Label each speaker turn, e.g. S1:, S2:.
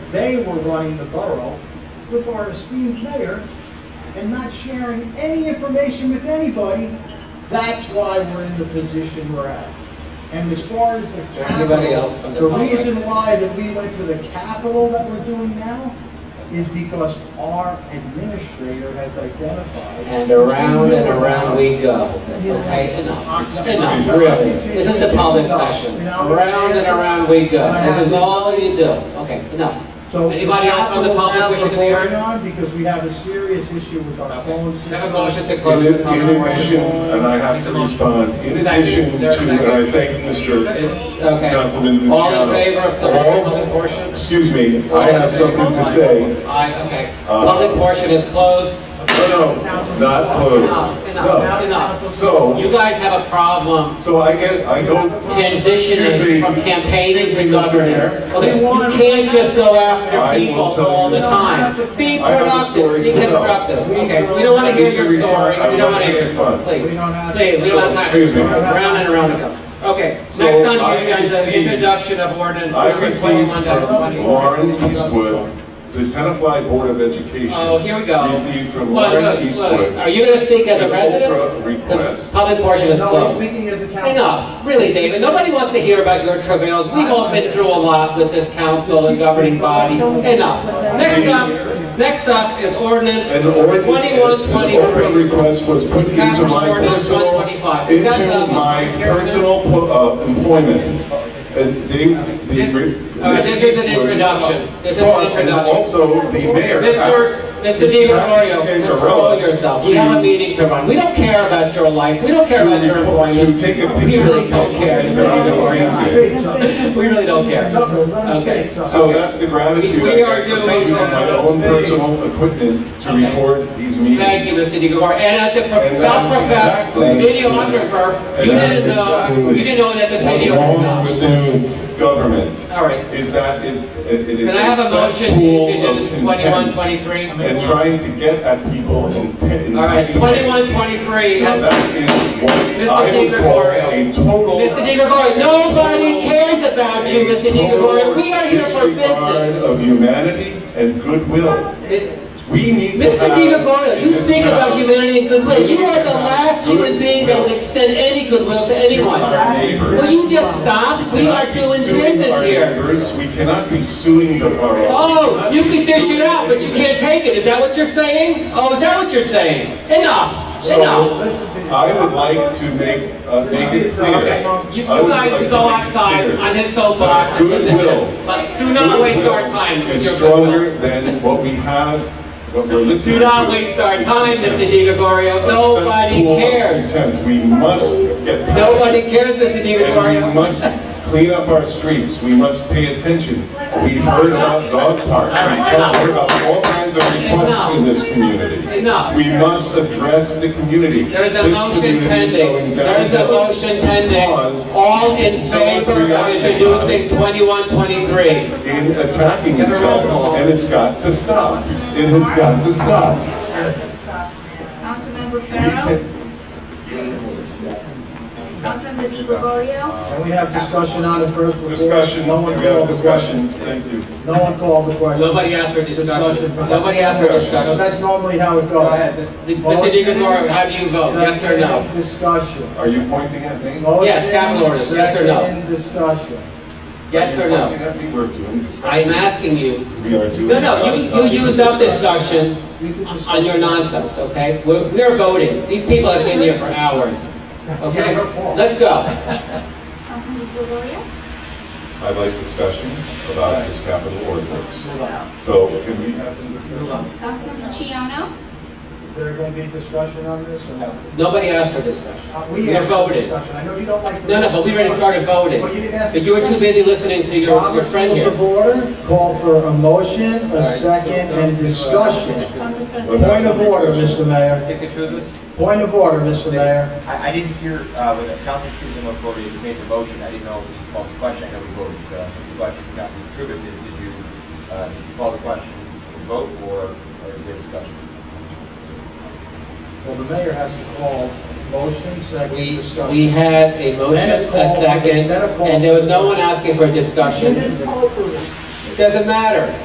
S1: They were running the borough with our esteemed mayor and not sharing any information with anybody. That's why we're in the position we're at. And as far as the
S2: Is there anybody
S1: capital,
S2: else in the
S1: the
S2: public?
S1: reason why that we went to the capital that we're doing now is because our administrator has identified.
S2: And around and around we go, okay, enough, It's enough, really, this is the public session, around and around we go, this is all you do, okay, enough.
S1: So
S2: Anybody else from the public wishing to be
S1: we're
S2: heard?
S1: on Because we have a serious issue with our phone
S2: Okay.
S1: system.
S2: Have a motion to
S3: In
S2: close the
S3: in
S2: public
S3: addition,
S2: portion.
S3: and I have to respond, in addition to, and I thank Mr.
S2: Is- Okay,
S3: Councilman Luciano.
S2: all in favor of closing the
S3: All-
S2: public portion?
S3: Excuse me, I have something to say.
S2: Aye, okay,
S3: Uh,
S2: public portion is closed,
S3: No, no, not
S2: Enough,
S3: closed.
S2: enough,
S3: No,
S2: enough. you
S3: so,
S2: guys have a problem
S3: so I get, I hope, Excuse
S2: transitioning
S3: me.
S2: from campaigning
S3: Excuse
S2: to
S3: me, Mr.
S2: governing.
S3: Mayor.
S2: Okay,
S1: We
S2: you
S1: want-
S2: can't just go after
S3: I will
S2: people
S3: tell
S2: all
S3: you.
S2: the time. Be
S3: I have a
S2: productive,
S3: story
S2: be
S3: to tell.
S2: constructive.
S1: We
S2: Okay,
S1: don't-
S2: we don't want
S1: I
S2: to hear
S3: need to
S2: your
S3: respond.
S2: story,
S3: I
S2: we don't want
S3: want
S2: to
S3: to
S2: hear your
S3: respond.
S2: story, please.
S1: We don't have-
S2: Please, we don't have time.
S3: Excuse me.
S2: Round and around we go. Okay, next
S3: So
S2: on the
S3: I
S2: agenda is
S3: received-
S2: introduction of ordinance
S3: I
S2: number
S3: received
S2: twenty-one
S3: from
S2: 20
S3: Warren Eastwood, the Tenafly Board of Education.
S2: Oh, here we go.
S3: Received from
S2: Look,
S3: Warren
S2: look, look.
S3: Eastwood.
S2: Are you going to speak as a
S3: An
S2: resident?
S3: Oprah
S2: 'Cause
S3: request.
S2: Public portion is
S1: No, I'm
S2: closed.
S1: speaking as a council.
S2: Enough, really, David. Nobody wants to hear about your travails. We've all been through a lot with this council and governing body. Enough. Next up, next up is ordinance
S3: An ordinance,
S2: twenty-one
S3: an open
S2: twenty-three.
S3: request was put into
S2: Capital
S3: my
S2: ordinance
S3: personal,
S2: 125. Is that
S3: into
S2: the-
S3: my personal po- uh, employment. And they, the.
S2: This- all right, this is an introduction. This is an
S3: Well, And
S2: introduction.
S3: also, the mayor asked.
S2: Mr. Mr. Di Gregorio, control yourself. We have a meeting to run. We don't care about your life. We don't care about your
S3: To
S2: employment.
S3: take a
S2: We
S3: picture
S2: really don't
S3: of Dunkin'
S2: care.
S3: and tell them to change it.
S1: Big chuckles.
S2: We really don't care.
S1: Chuckles, let us
S2: Okay.
S1: big chuckles.
S3: So that's the gratitude
S2: We- we
S3: I
S2: are
S3: get for
S2: doing,
S3: using my
S2: uh,
S3: own personal equipment to
S2: Okay.
S3: record these meetings.
S2: Thank you, Mr. DeGore. And as the
S3: And
S2: prof-
S3: that's
S2: self-professed
S3: exactly-
S2: videographer,
S3: And
S2: you
S3: that's
S2: didn't know,
S3: exactly
S2: you didn't know that the
S3: What's
S2: video was
S3: wrong
S2: not.
S3: with this government?
S2: All right.
S3: Is that it's, it it is
S2: Can I
S3: a
S2: have a motion to
S3: cesspool
S2: introduce
S3: of
S2: twenty-one,
S3: contempt
S2: twenty-three?
S3: and trying to get at people and. pe- and
S2: All right,
S3: petty
S2: twenty-one,
S3: things.
S2: twenty-three.
S3: Now
S2: Mr.
S3: that is what I
S2: Di
S3: would call
S2: Gregorio.
S3: a total.
S2: DeGore, nobody cares about you,
S3: a
S2: Mr. DeGore.
S3: total
S2: We are here for
S3: disregard
S2: business.
S3: Of humanity and goodwill.
S2: It's-
S3: We need to
S2: Mr.
S3: have
S2: DiGregorio,
S3: in
S2: you
S3: this
S2: think about
S3: town
S2: humanity and goodwill. You are the last human being that would extend any goodwill to
S3: to
S2: anyone.
S3: our neighbors.
S2: Will you just stop? We are
S3: cannot be
S2: doing
S3: suing
S2: business
S3: our
S2: here.
S3: neighbors. We cannot be suing the borough.
S2: Oh,
S3: We
S2: you
S3: cannot
S2: can
S3: be
S2: dish
S3: suing
S2: it out, but you
S3: the-
S2: can't take it. Is that what you're saying? Oh, is that what you're saying? Enough,
S3: So-
S2: enough.
S1: Listen to me.
S3: I would like to make, uh, make it clear.
S2: Okay, you you
S3: I would
S2: guys
S3: like
S2: can
S3: to
S2: go
S3: make it
S2: outside
S3: clear.
S2: on his soapbox and listen to
S3: Goodwill.
S2: him. But do not waste our time with
S3: Is
S2: your
S3: stronger
S2: goodwill.
S3: than what we have, what we're listening to.
S2: Do not waste our time, Mr. DiGregorio.
S3: A
S2: Nobody
S3: cesspool of
S2: cares.
S3: contempt. We must get past
S2: Nobody cares, Mr.
S3: And we
S2: DiGregorio.
S3: must clean up our streets, we must pay attention. We've heard about dog parks, we've heard about all kinds of requests in this community.
S2: Enough.
S3: We must address the community.
S2: There is a
S3: This
S2: motion
S3: community is
S2: pending.
S3: going
S2: There is a
S3: downhill
S2: motion
S3: because
S2: pending. All in
S3: someone
S2: favor of
S3: created a
S2: introducing 2123.
S3: In attacking each
S2: Get a roll
S3: other,
S2: call.
S3: and it's got to stop. It has got to stop.
S4: Councilmember
S3: We
S4: Farrell,
S3: can-
S4: Councilmember Di Gregorio,
S1: And we have discussion on it first before.
S3: Discussion,
S1: No
S3: we
S1: one
S3: have
S1: called the question.
S3: discussion, thank you.
S1: No one called the question.
S2: Nobody asked for discussion.
S1: Discussion.
S2: Nobody asked for
S1: So
S2: discussion.
S1: That's normally how it goes.
S2: Go ahead. Mr. DiGregorio, how do you vote? Yes or no?
S1: Second Discussion.
S3: Are you pointing at me? Are
S2: Yes, capital
S1: Motion,
S2: orders. Yes or no?
S1: second discussion.
S2: Yes
S3: you
S2: or
S3: Pointing
S2: no?
S3: at me, we're doing
S2: I
S3: discussion.
S2: am asking you.
S3: We are doing.
S2: No, no, you, you used up discussion
S1: You can discuss.
S2: on your nonsense, okay? We're, we're voting. These people have been here for hours, okay? Let's go.
S4: Councilmember Di Gregorio,
S3: I'd like discussion about this capital ordinance.
S1: Hold on.
S3: So can we have some discussion?
S4: Councilmember Chiano,
S1: Is there going to be discussion on this or no?
S2: Nobody asked for discussion.
S1: Uh,
S2: We are
S1: asked for
S2: voting.
S1: discussion. I know you don't like. to-
S2: No, no, but we already started voting.
S1: Well, you didn't ask.
S2: But you were too busy listening to your, your
S1: Robert's
S2: friend
S1: Rules
S2: here.
S1: of order, call for a motion, a second, and discussion.
S4: Council
S1: Point
S4: President.
S1: of order, Mr. Mayor.
S2: Take the truth.
S1: Point of order, Mr. Mayor.
S5: I, I didn't hear, uh, when Councilman Trubus and Corey made the motion, I didn't know if you called the question, I know we voted, so I think the question for Councilman Trubus is, did you, uh, did you call the question, and vote, or, or is there discussion?
S1: Well, the mayor has to call motion, second,
S2: We,
S1: discussion.
S2: we had a
S1: Then a
S2: motion,
S1: call-
S2: a second,
S1: then a call.
S2: and there was no one asking for a discussion. Doesn't matter.